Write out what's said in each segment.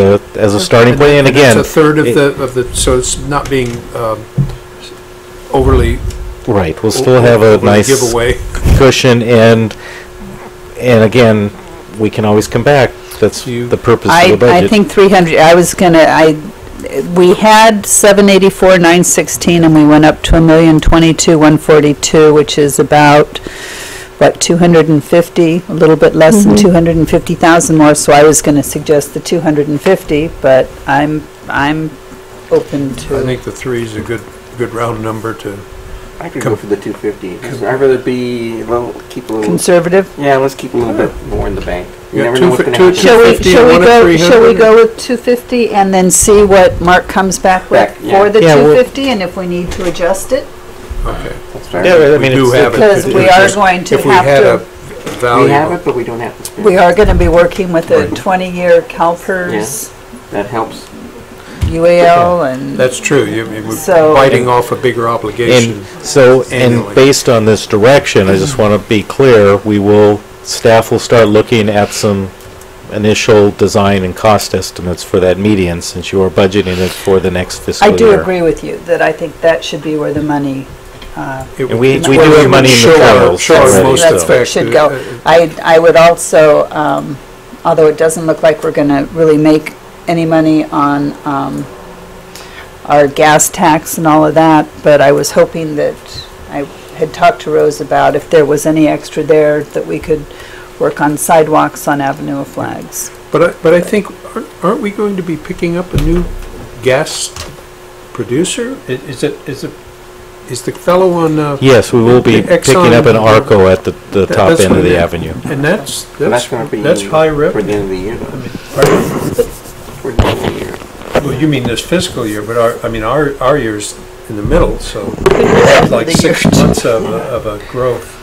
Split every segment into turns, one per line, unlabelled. uh, as a starting point, and again.
It's a third of
it-
the, of the, so it's not being um, overly.
Right, we'll still have a
overly
nice
Giveaway.
cushion, and, and again, we can always come back. That's
You-
the purpose
I,
of the budget.
I think 300, I was gonna, I, we had 784, 916, and we went up to a million twenty-two, 142, which is about, what, 250, a little bit less than 250,000 more, so I was gonna suggest the 250, but I'm, I'm open
I
to,
think the three is a good, good round number to,
I could go for the 250 because I'd rather be a little, keep a little.
conservative.
yeah, let's keep a little bit more in the bank. You
Yeah,
never
two
know what's
fi-
going to
two-
happen.
Shall
250 and
we, shall we
one at
go, shall we
300?
go with 250 and then see what Mark comes back with
Back, yeah.
for the
Yeah, we'll-
250, and if we need to adjust it?
okay.
That's fair.
Yeah, I
We
mean,
do
it's-
have it.
Because we are going to
If we
have
had
to-
a
we have
value,
it, but we don't have to spend.
We are going to be working with a
Right.
20-year CalPERS,
That helps.
UAL, and,
that's true, you, you- we're
So-
biting off a bigger obligation.
And so, and
annually.
based on this direction, I just want to be clear, we will, staff will start looking at some initial design and cost estimates for that median, since you are budgeting it for the next fiscal
I
year.
do agree with you that I think that should be where the money, uh,
It-
And we-
it's
we
where
do have
would
money in the
show our-
barrels
show our
already,
most
so-
that's where it
effect,
should
uh,
go. I, I would also, um, although it doesn't look like we're going to really make any money on um, our gas tax and all of that, but I was hoping that, I had talked to Rose about if there was any extra there that we could work on sidewalks on Avenue of Flags.
But I, but I think, aren't- aren't we going to be picking up a new gas producer? I- Is it, is it, is the fellow on, uh,
Yes, we will be
Okay,
picking up an
Exxon-
ARCO at the, the
That-
top
that's
end of
what
the
it-
avenue.
and that's,
And
that's,
that's going to be
that's high
for the
revenue.
end of the year. Though.
Our-
For the end of the year.
Well, you mean this fiscal year, but our, I mean, our, our year's in the middle, so we have like six months of, a- of a growth.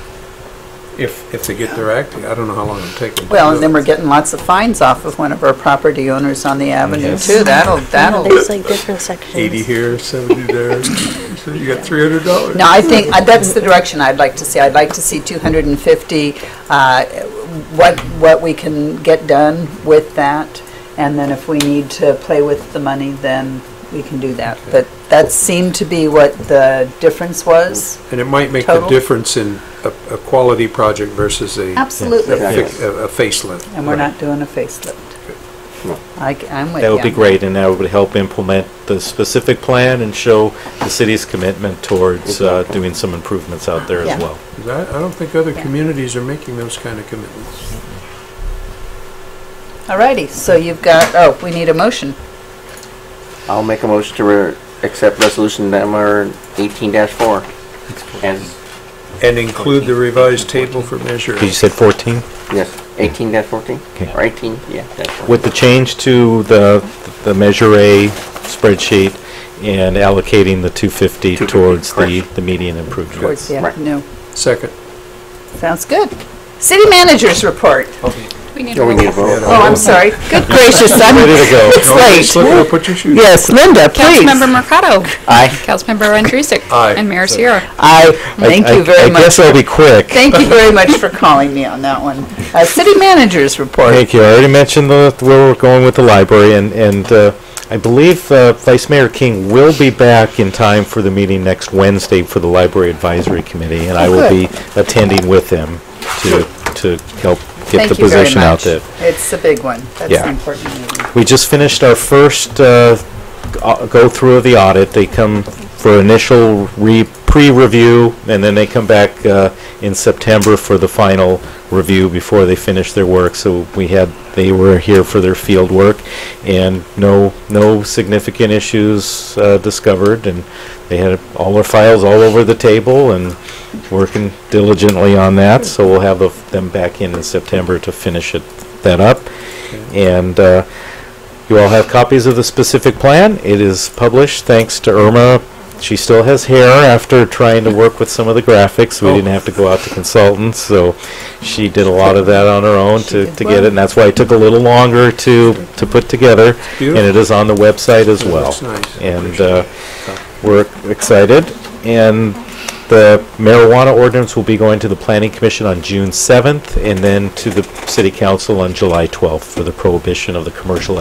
If, if they get their act, I don't know how long it'll take them. to
Well,
do
and then
it.
we're getting lots of fines off of one of our property owners on the avenue,
Yes.
too. That'll,
No,
that'll,
There's like different sections.
Eighty here, seventy there, so you got three hundred dollars.
no, I think, uh, that's the direction I'd like to see. I'd like to see 250, uh, what, what we can get done with that, and then if we need to play with the money, then we can do that. But that seemed to be what the difference was.
And it might make the
Total.
difference in a, a quality project versus a, a
Absolutely.
Yeah.
fi- a a facelift.
And we're not doing a facelift.
No.
I, am with you.
That would be great, and that would help implement the specific plan and show the city's commitment towards uh,
Exactly.
doing some improvements out there
Yeah.
as well.
'Cause I, I don't think other
Yeah.
communities are making those kind of commitments.
All righty, so you've got, oh, we need a motion.
I'll make a motion to re- accept resolution number 18-4 as
And include the revised table for measure.
You said 14?
yes 18-14
Okay.
or 18 yeah dash 14.
With the change to the, the Measure A spreadsheet and allocating the 250
250,
towards the,
correct.
the median improvement.
Towards the
Right.
afternoon.
Second.
Sounds good. City managers report.
No, we need a vote.
Oh, I'm sorry. Good gracious,
Ready
I'm,
to go.
Don't just
it's
look
late.
up, Put your shoes.
Yes, Linda,
Councilmember
please.
Mercado.
Aye.
Councilmember Andrusik.
Aye.
And Mayor Sierra.
I,
I-
thank
I-
you very
I guess
much.
I'll be quick.
Thank you very much for calling me on that one. Uh, city managers report.
Thank you. I already mentioned the, where we're going with the library, and, and uh, I believe uh, Vice Mayor King will be back in time for the meeting next Wednesday for the Library Advisory Committee, and I will be
Oh, good.
attending with him to, to help get the
Thank you very
position out
much.
there.
It's a big one. That's
Yeah.
an important meeting.
We just finished our first uh, au- go-through of the audit. They come for initial re, pre-review, and then they come back uh, in September for the final review before they finish their work. So we had, they were here for their field work, and no, no significant issues uh, discovered, and they had all their files all over the table and working diligently on that. So we'll have the- them back in in September to finish it, that up. And uh, you all have copies of the specific plan. It is published thanks to Irma. She still has hair after trying to work with some of the graphics. We
Oh.
didn't have to go out to consultants, so she did a lot of that on her own
She
to
did
to
well.
get it. And that's why it took a little longer to to put together. And
beautiful.
it is on the website as
It
well.
looks nice.
And uh, we're excited. And the marijuana ordinance will be going to the planning commission on June 7th and then to the city council on July 12th for the prohibition of the commercial